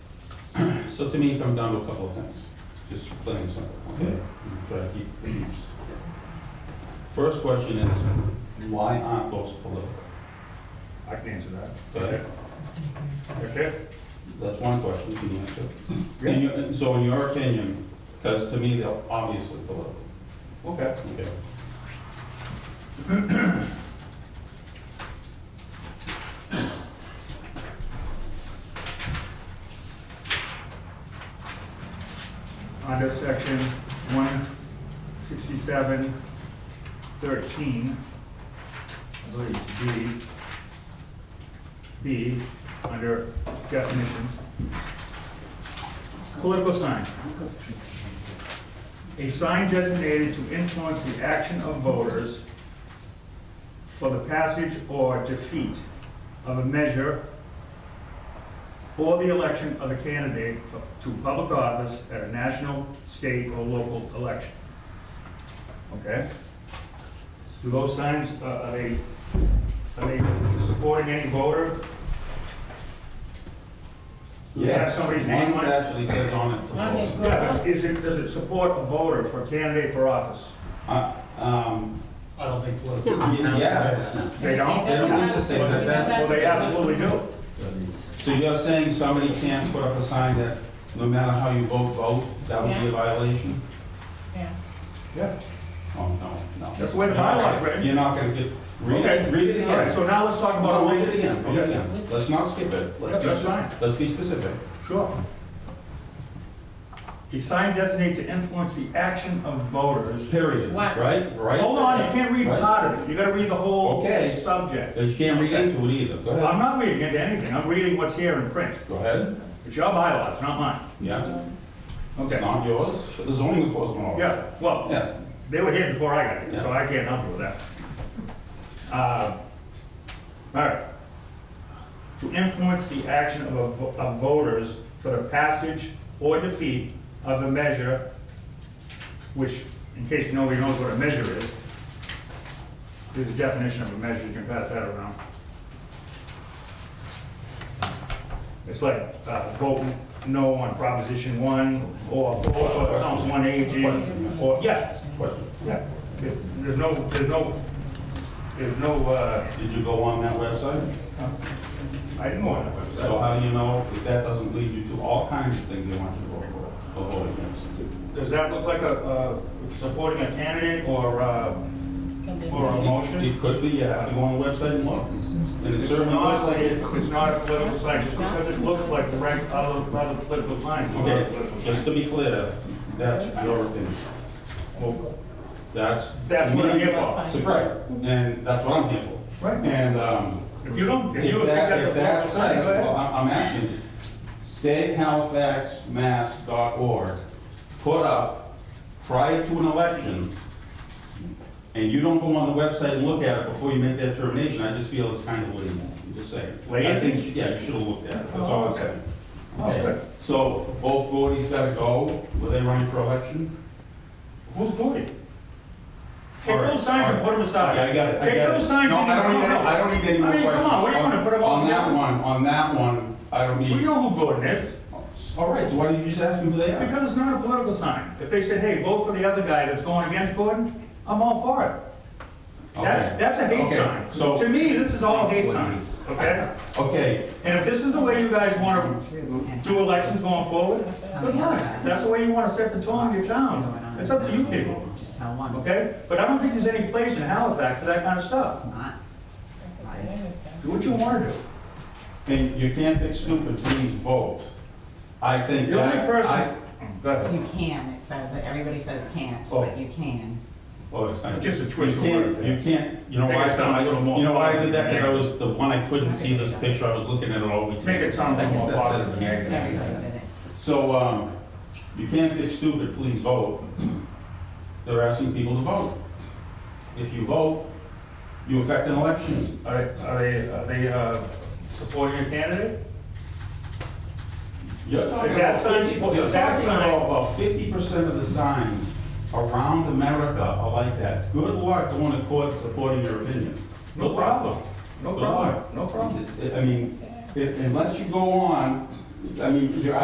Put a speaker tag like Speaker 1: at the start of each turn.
Speaker 1: So to me, it comes down to a couple of things, just plain and simple, okay? And
Speaker 2: Mm-hmm.
Speaker 1: Try to keep the peace. First question is, why aren't those political?
Speaker 2: I can answer that.
Speaker 1: Okay,
Speaker 2: That's it?
Speaker 1: that's one question you can answer. And you- and so in your opinion, because to me, they're obviously political.
Speaker 2: Okay.
Speaker 1: Okay.
Speaker 2: Under section one sixty-seven thirteen, I believe it's B, B, under definitions. Political sign. A sign designated to influence the action of voters for the passage or defeat of a measure or the election of a candidate for- to public office at a national, state, or local election. Okay? Do those signs, uh, are they, are they supporting any voter? Do they have somebody's name
Speaker 1: Mine
Speaker 2: on it?
Speaker 1: actually says on it. proposed.
Speaker 2: Yeah, but is it, does it support a voter for candidate for office?
Speaker 1: Uh, Um,
Speaker 3: I don't think political signs have
Speaker 1: yes.
Speaker 2: They don't?
Speaker 1: They don't have to say that.
Speaker 2: Well, they absolutely do.
Speaker 1: So you're saying somebody can't put up a sign that no matter how you vote, vote, that would be a violation?
Speaker 4: Yeah.
Speaker 2: Yeah.
Speaker 1: Oh, no, no.
Speaker 2: That's the way the bylaw is written.
Speaker 1: You're not gonna get, read
Speaker 2: Okay.
Speaker 1: it, read it
Speaker 2: All right,
Speaker 1: again.
Speaker 2: so now let's talk about
Speaker 1: No, read it
Speaker 2: election.
Speaker 1: again, read it again. Let's not skip it.
Speaker 2: Yeah,
Speaker 1: Let's
Speaker 2: that's
Speaker 1: be,
Speaker 2: fine.
Speaker 1: let's be specific.
Speaker 2: Sure. A sign designated to influence the action of voters.
Speaker 1: Period,
Speaker 4: What?
Speaker 1: right? Right?
Speaker 2: Hold on, you can't read
Speaker 1: Right.
Speaker 2: part of it, you gotta read the whole
Speaker 1: Okay.
Speaker 2: subject.
Speaker 1: You can't read into it either. Go ahead.
Speaker 2: I'm not reading into anything, I'm reading what's here in print.
Speaker 1: Go ahead.
Speaker 2: It's your bylaws, not mine.
Speaker 1: Yeah, it's
Speaker 2: Okay.
Speaker 1: not yours, but the zoning enforcement officer.
Speaker 2: Yeah, well,
Speaker 1: Yeah.
Speaker 2: They were here before I got here, so I can't help you with that. Uh, All right. To influence the action of, a vo- of voters for the passage or defeat of a measure, which, in case nobody knows what a measure is, there's a definition of a measure, you can pass that around. It's like, uh, vote no on Proposition One, or vote for Council One Aging, or, yeah,
Speaker 1: Question.
Speaker 2: yeah, There- there's no, there's no, there's no, uh,
Speaker 1: Did you go on that website?
Speaker 2: I didn't go on that
Speaker 1: So
Speaker 2: website.
Speaker 1: how do you know if that doesn't lead you to all kinds of things they want you to vote for, or vote against?
Speaker 2: Does that look like a, uh, supporting a candidate or, uh, or a motion?
Speaker 1: It could be, you have to go on the website and look. And it
Speaker 2: It's
Speaker 1: certainly looks
Speaker 2: not,
Speaker 1: like
Speaker 2: it's,
Speaker 1: it.
Speaker 2: it's not a political sign, just because it looks like the rank, other, other political signs. it's not a
Speaker 1: Okay,
Speaker 2: political
Speaker 1: just
Speaker 2: sign.
Speaker 1: to be clear, that's your opinion. Well, That's.
Speaker 2: That's what I'm here
Speaker 1: That's
Speaker 2: for.
Speaker 1: Right, and that's what I'm here for.
Speaker 2: Right.
Speaker 1: And, um,
Speaker 2: If you don't, if you
Speaker 1: if
Speaker 2: think
Speaker 1: that,
Speaker 2: that's a
Speaker 1: if that
Speaker 2: political sign,
Speaker 1: says,
Speaker 2: go ahead.
Speaker 1: well, I'm, I'm asking, savehalifaxmass.org, put up prior to an election, and you don't go on the website and look at it before you make that determination, I just feel it's kind of lazy, I'm just saying. I
Speaker 2: Lazy?
Speaker 1: think, yeah, you should have looked at it, that's all I'm saying.
Speaker 2: Oh, okay.
Speaker 1: Okay, so both Gordy's gotta go, were they running for election?
Speaker 2: Who's voting? Take
Speaker 1: All right,
Speaker 2: those signs and
Speaker 1: all
Speaker 2: put them aside.
Speaker 1: Yeah, I got it, I
Speaker 2: Take
Speaker 1: got it.
Speaker 2: those signs
Speaker 1: No,
Speaker 2: and-
Speaker 1: I don't need, any- I don't need any more
Speaker 2: I mean,
Speaker 1: questions.
Speaker 2: come on, what do you wanna put them all
Speaker 1: On that
Speaker 2: together?
Speaker 1: one, on that one, I don't need.
Speaker 2: We know who voted it.
Speaker 1: All right, so why did you just ask me who they are?
Speaker 2: Because it's not a political sign. If they said, hey, vote for the other guy that's going against Gordon, I'm all for it. That's,
Speaker 1: Okay.
Speaker 2: that's a hate
Speaker 1: Okay,
Speaker 2: sign.
Speaker 1: so-
Speaker 2: To me, this is all hate signs, okay?
Speaker 1: Okay,
Speaker 2: And if this is the way you guys want to do elections going forward, good luck. If That's the way you want to set the tone of your town. It's up to you people,
Speaker 3: Just tell one.
Speaker 2: okay? But I don't think there's any place in Halifax for that kind of stuff.
Speaker 3: Not.
Speaker 2: Do what you want to do.
Speaker 1: and you can't fix stupid, please vote. I think
Speaker 2: The
Speaker 1: that.
Speaker 2: only person,
Speaker 1: I-
Speaker 2: go ahead.
Speaker 3: You can, it says, that everybody says can't,
Speaker 1: Oh.
Speaker 3: but you can.
Speaker 1: Oh, it's not.
Speaker 2: Just a twist of
Speaker 1: You can't-
Speaker 2: words, yeah.
Speaker 1: You can't, you know
Speaker 2: Make
Speaker 1: why,
Speaker 2: it sound a little more
Speaker 1: you know why I did that, because I
Speaker 2: positive.
Speaker 1: was, the one I couldn't see this picture, I was looking at it all week.
Speaker 2: Make it sound a
Speaker 1: I
Speaker 2: little
Speaker 1: guess
Speaker 2: more
Speaker 1: that says
Speaker 2: positive.
Speaker 1: here.
Speaker 3: Everybody did it.
Speaker 1: So, um, you can't fix stupid, please vote. They're asking people to vote. If you vote, you affect an election.
Speaker 2: Are they, are they, are they uh, supporting a candidate?
Speaker 1: You're talking
Speaker 2: Is that
Speaker 1: about
Speaker 2: sign-
Speaker 1: fifty, you're
Speaker 2: is that
Speaker 1: talking
Speaker 2: sign-
Speaker 1: about about fifty percent of the signs around America are like that. Good luck going to court supporting your opinion.
Speaker 2: No
Speaker 1: Good
Speaker 2: problem.
Speaker 1: luck.
Speaker 2: No
Speaker 1: Good
Speaker 2: problem,
Speaker 1: luck.
Speaker 2: no problem.
Speaker 1: It's- it- I mean, it- unless you go on, I mean, your